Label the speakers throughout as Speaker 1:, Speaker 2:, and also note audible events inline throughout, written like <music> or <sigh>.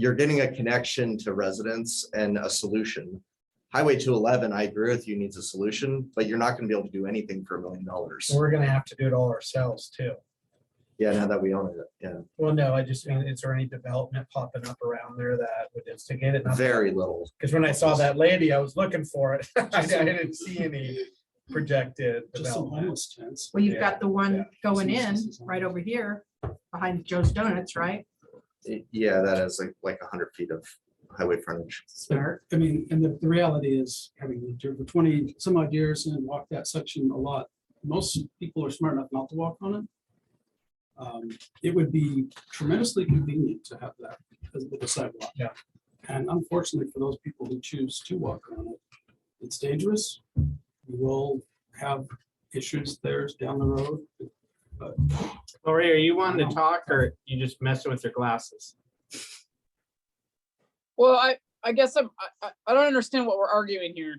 Speaker 1: you're getting a connection to residents and a solution. Highway two eleven, I agree with you, needs a solution, but you're not gonna be able to do anything for a million dollars.
Speaker 2: We're gonna have to do it all ourselves too.
Speaker 1: Yeah, now that we own it, yeah,
Speaker 2: Well, no, I just mean, is there any development popping up around there that would instigate it?
Speaker 1: very little.
Speaker 2: Because when I saw that lady, I was looking for it. <laughs> I I didn't see any projected
Speaker 3: Just some
Speaker 2: development.
Speaker 3: homeless tents.
Speaker 4: Well, you've
Speaker 2: Yeah,
Speaker 4: got the one going in
Speaker 3: Businesses and-
Speaker 4: right over here behind Joe's Donuts, right?
Speaker 1: Y- Yeah, that is like, like a hundred feet of highway frontage.
Speaker 4: Start.
Speaker 3: I mean, and the, the reality is, having lived here for twenty some odd years and walked that section a lot, most people are smart enough not to walk on it. Um, It would be tremendously convenient to have that as with a sidewalk.
Speaker 2: Yeah.
Speaker 3: And unfortunately, for those people who choose to walk on it, it's dangerous. We will have issues there down the road.
Speaker 5: Lori, are you wanting
Speaker 3: No.
Speaker 5: to talk or you just messing with your glasses?
Speaker 6: Well, I, I guess I'm, I- I, I don't understand what we're arguing here.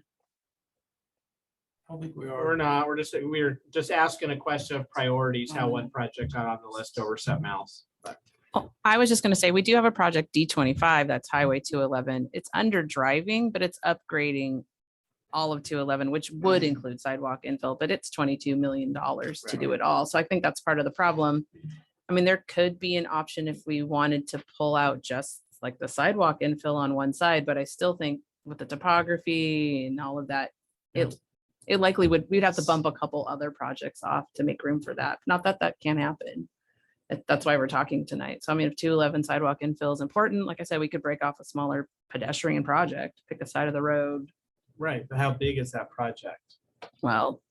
Speaker 3: I don't think we
Speaker 5: We're
Speaker 3: are.
Speaker 5: not, we're just, we're just asking a question of priorities, how one project got on the list over something else. But
Speaker 7: Oh, I was just gonna say, we do have a project D twenty-five, that's Highway two eleven. It's under driving, but it's upgrading all of two eleven, which would include sidewalk infill, but it's twenty-two million dollars to do it all. So I think that's part of the problem. I mean, there could be an option if we wanted to pull out just like the sidewalk infill on one side, but I still think with the topography and all of that, it, it likely would, we'd have to bump a couple other projects off to make room for that. Not that that can't happen that- that's why we're talking tonight. So I mean, if two eleven sidewalk infill is important, like I said, we could break off a smaller pedestrian project, pick a side of the road.
Speaker 5: Right, but how big is that project?
Speaker 7: Well,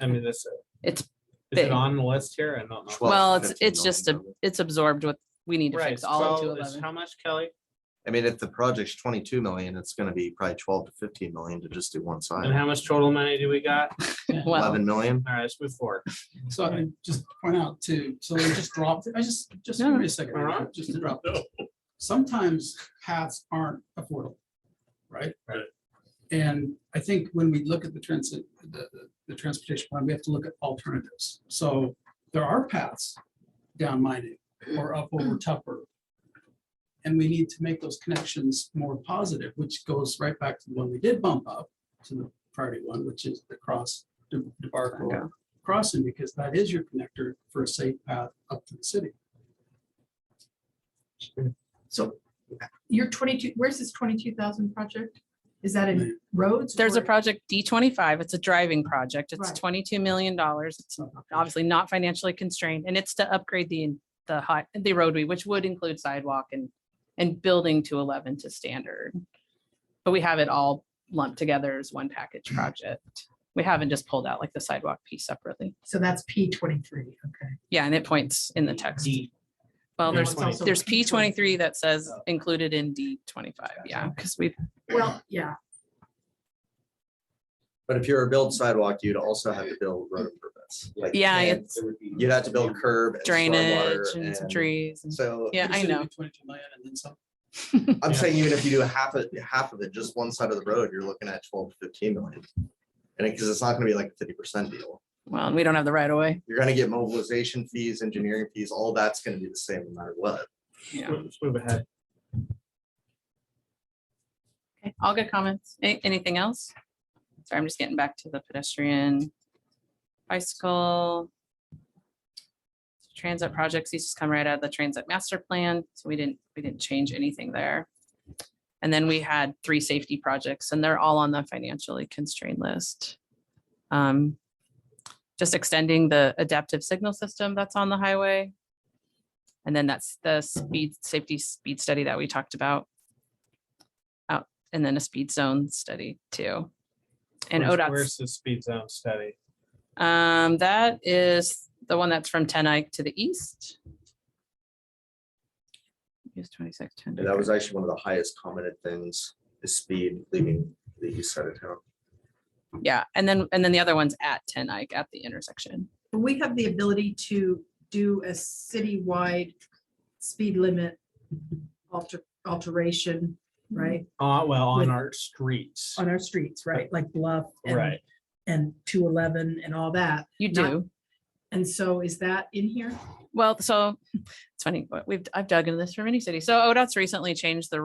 Speaker 5: I mean, this,
Speaker 7: it's,
Speaker 5: is
Speaker 7: Big.
Speaker 5: it on the list here? I don't know.
Speaker 1: Well,
Speaker 7: well, it's,
Speaker 1: 15
Speaker 7: it's just, a
Speaker 1: million.
Speaker 7: it's absorbed with, we need to
Speaker 5: Right,
Speaker 7: fix all of two
Speaker 5: so it's
Speaker 7: eleven.
Speaker 5: how much, Kelly?
Speaker 1: I mean, if the project's twenty-two million, it's gonna be probably twelve to fifteen million to just do one
Speaker 5: And
Speaker 1: side.
Speaker 5: how much total money do we got?
Speaker 7: Well,
Speaker 1: Eleven million,
Speaker 5: All right, let's move forward.
Speaker 3: So I just point out too, so they just dropped, it. I just, just
Speaker 7: No.
Speaker 3: give me a second,
Speaker 5: All right.
Speaker 3: just to drop. it. Sometimes paths aren't affordable, right?
Speaker 5: Right.
Speaker 3: And I think when we look at the transit, the, the- the transportation plan, we have to look at alternatives. So there are paths down Mining or up over Tupper. And we need to make those connections more positive, which goes right back to the one we did bump up to the priority one, which is the cross De-
Speaker 7: Okay.
Speaker 3: DeBarco crossing, because that is your connector for a safe path up to the city.
Speaker 4: So your twenty-two, where's this twenty-two thousand project? Is that in roads?
Speaker 7: there's a
Speaker 4: or-
Speaker 7: project D twenty-five, it's a driving project. It's
Speaker 4: Right.
Speaker 7: twenty-two million dollars. It's obviously not financially constrained and it's to upgrade the, the high, the roadway, which would include sidewalk and, and building to eleven to standard. But we have it all lumped together as one package project. We haven't just pulled out like the sidewalk piece separately.
Speaker 4: So that's P twenty-three, okay.
Speaker 7: Yeah, and it points in the text. Well,
Speaker 4: And
Speaker 7: Oh, there's,
Speaker 4: it's also
Speaker 7: there's P twenty-three
Speaker 4: P23.
Speaker 7: that says included in D twenty-five. Yeah, because we've,
Speaker 4: Well, yeah,
Speaker 1: but if you're a build sidewalk, you'd also have to build road improvements. Like,
Speaker 7: yeah, it's
Speaker 1: You'd have to build curb. and
Speaker 7: drainage
Speaker 1: stormwater
Speaker 7: and some
Speaker 1: and-
Speaker 7: trees. and-
Speaker 1: So
Speaker 7: Yeah,
Speaker 3: You
Speaker 7: I
Speaker 3: said you
Speaker 7: know.
Speaker 3: do Twenty-two million and then some.
Speaker 1: I'm
Speaker 5: Yeah.
Speaker 1: saying even if you do half of, half of it, just one side of the road, you're looking at twelve to fifteen million. And because it's not gonna be like a fifty percent deal.
Speaker 7: Well, and we don't have the right of way.
Speaker 1: You're gonna get mobilization fees, engineering fees, all that's gonna be the same no matter what.
Speaker 7: Yeah.
Speaker 5: Let's move ahead.
Speaker 7: Okay, all good comments. A- Anything else? Sorry, I'm just getting back to the pedestrian bicycle. Transit projects, these just come right out of the transit master plan, so we didn't, we didn't change anything there. And then we had three safety projects and they're all on the financially constrained list. Um, Just extending the adaptive signal system that's on the highway. And then that's the speed, safety speed study that we talked about and then a speed zone study too. And
Speaker 5: Where's-
Speaker 7: ODOT's,
Speaker 5: Where's the speed zone study?
Speaker 7: um, that is the one that's from Ten Eyck to the east. Use twenty-six, ten.
Speaker 1: And that was actually one of the highest commented things, is speed leaving the east side of town.
Speaker 7: Yeah, and then, and then the other one's at Ten Eyck at the intersection.
Speaker 4: but we have the ability to do a citywide speed limit alter, alteration, right,
Speaker 5: Uh, well,
Speaker 4: With-
Speaker 5: on our streets.
Speaker 4: on our streets, right, like Bluff and-
Speaker 5: Right.
Speaker 4: and two eleven and all that.
Speaker 7: You
Speaker 4: Not-
Speaker 7: do.
Speaker 4: And so is that in here?
Speaker 7: Well, so it's funny, but we've, I've dug into this for many cities. So ODOT's oh, recently changed the